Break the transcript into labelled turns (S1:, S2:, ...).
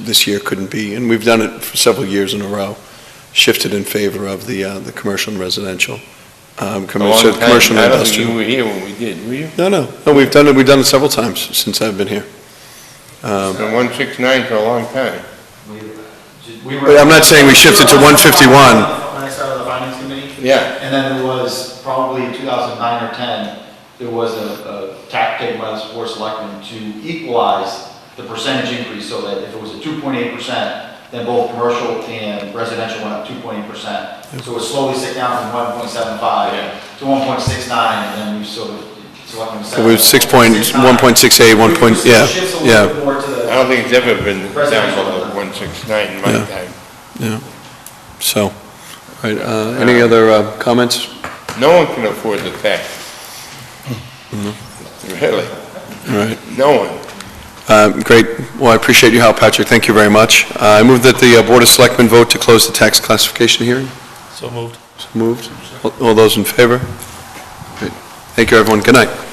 S1: this year couldn't be, and we've done it for several years in a row, shifted in favor of the, uh, the commercial and residential, um, commercial,
S2: Long time.
S1: commercial and
S2: I don't think you
S1: industrial.
S2: were here when we did, were you?
S1: No, no, no, we've done it, we've done it several times since I've been here. Um,
S2: Been 169 for a long time.
S1: But I'm not saying we shifted to 151.
S3: When I started the finance committee,
S2: Yeah.
S3: and then there was probably 2009 or 10, there was a a tactic by the board of selectmen to equalize the percentage increase so that if it was a 2.8%, then both commercial and residential went up 2.8%. So it slowly sit down from 1.75 to 1.69, and then we sort of, selectmen.
S1: So we're six point, 1.68, 1 point, yeah, yeah.
S3: Shifts a little bit more to the.
S2: I don't think it's ever been down
S3: Presidential.
S2: below 169 in my
S1: Yeah.
S2: time.
S1: So, all right, uh, any other uh, comments?
S2: No one can afford the tax.
S1: Mm-hmm.
S2: Really,
S1: All right,
S2: no one.
S1: Um, great. Well, I appreciate your help, Patrick. Thank you very much. Uh, I move that the uh, Board of Selectmen vote to close the tax classification hearing.
S4: So moved.
S1: So Moved. All- All those in favor? Great. Thank you, everyone. Good night.